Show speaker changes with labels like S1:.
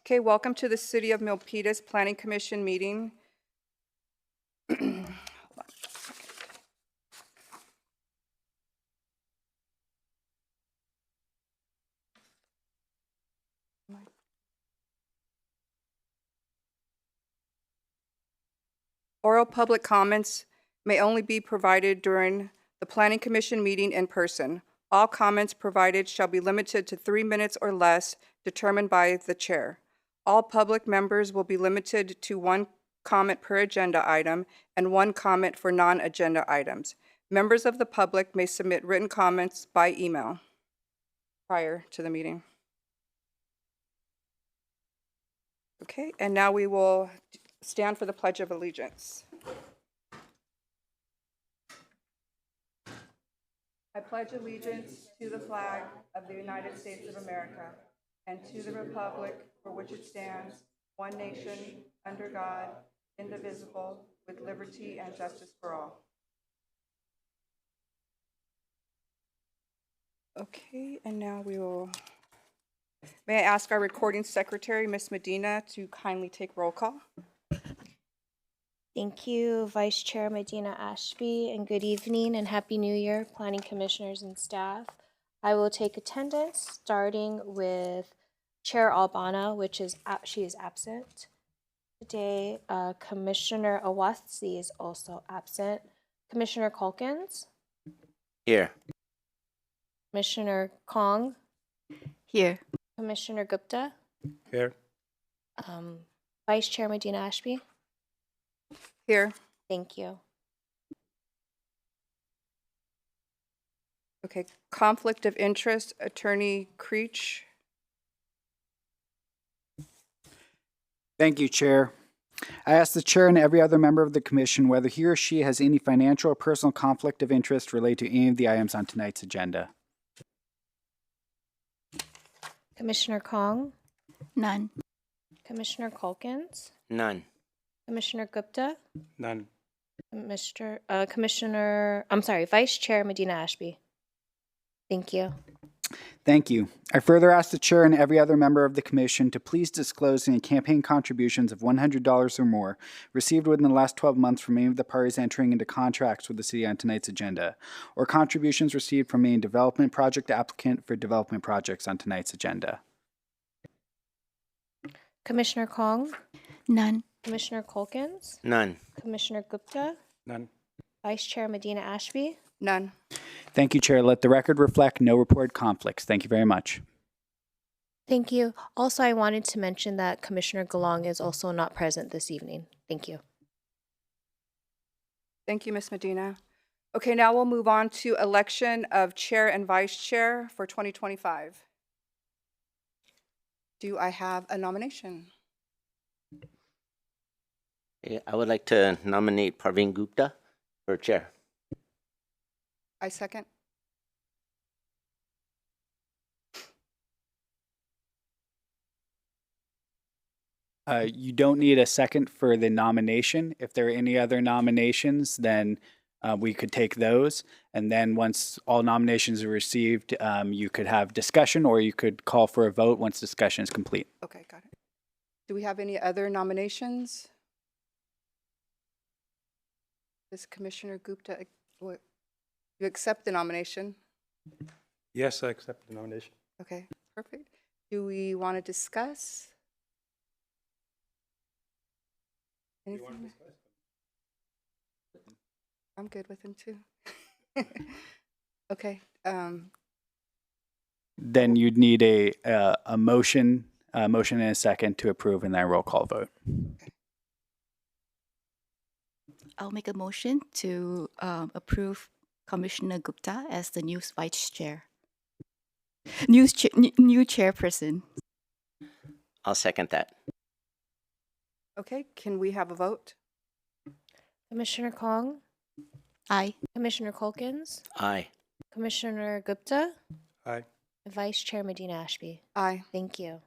S1: Okay, welcome to the City of Milpitas Planning Commission meeting. Oral public comments may only be provided during the Planning Commission meeting in person. All comments provided shall be limited to three minutes or less determined by the chair. All public members will be limited to one comment per agenda item and one comment for non-agenda items. Members of the public may submit written comments by email prior to the meeting. Okay, and now we will stand for the Pledge of Allegiance. I pledge allegiance to the flag of the United States of America and to the republic for which it stands, one nation, under God, indivisible, with liberty and justice for all. Okay, and now we will, may I ask our recording secretary, Ms. Medina, to kindly take roll call?
S2: Thank you, Vice Chair Medina Ashby, and good evening and Happy New Year, Planning Commissioners and staff. I will take attendance, starting with Chair Albana, which is, ab- she is absent. Today, uh, Commissioner Awasthi is also absent. Commissioner Culkins,
S3: Here.
S2: Commissioner Kong,
S4: Here.
S2: Commissioner Gupta,
S3: Here.
S2: um, Vice Chair Medina Ashby.
S1: Here.
S2: Thank you.
S1: Okay, conflict of interest, Attorney Creech.
S5: Thank you, Chair. I ask the Chair and every other member of the Commission whether he or she has any financial or personal conflict of interest related to any of the items on tonight's agenda.
S2: Commissioner Kong,
S4: None.
S2: Commissioner Culkins,
S3: None.
S2: Commissioner Gupta,
S5: None.
S2: Mr. Uh, Commissioner, I'm sorry, Vice Chair Medina Ashby. Thank you.
S5: Thank you. I further ask the Chair and every other member of the Commission to please disclose any campaign contributions of $100 or more received within the last 12 months from any of the parties entering into contracts with the City on tonight's agenda, or contributions received from any development project applicant for development projects on tonight's agenda.
S2: Commissioner Kong,
S4: None.
S2: Commissioner Culkins,
S3: None.
S2: Commissioner Gupta,
S5: None.
S2: Vice Chair Medina Ashby.
S1: None.
S5: Thank you, Chair. Let the record reflect no reported conflicts. Thank you very much.
S2: Thank you. Also, I wanted to mention that Commissioner Galong is also not present this evening. Thank you.
S1: Thank you, Ms. Medina. Okay, now we'll move on to election of chair and vice chair for 2025. Do I have a nomination?
S3: I would like to nominate Parveen Gupta for chair.
S1: I second.
S5: Uh, you don't need a second for the nomination. If there are any other nominations, then uh, we could take those. And then once all nominations are received, um, you could have discussion or you could call for a vote once discussion is complete.
S1: Okay, got it. Do we have any other nominations? Does Commissioner Gupta, ac- what- you accept the nomination?
S6: Yes, I accept the nomination.
S1: Okay, perfect. Do we want to discuss? Anything? I'm good with him too. Okay, um,
S5: Then you'd need a, a, a motion, a motion and a second to approve and then a roll call vote.
S4: I'll make a motion to um, approve Commissioner Gupta as the new vice chair. New, cha- n- new chairperson.
S3: I'll second that.
S1: okay, can we have a vote?
S2: Commissioner Kong,
S4: Aye.
S2: Commissioner Culkins,
S3: Aye.
S2: Commissioner Gupta,
S6: Aye.
S2: Vice Chair Medina Ashby.
S1: Aye.
S2: Thank you.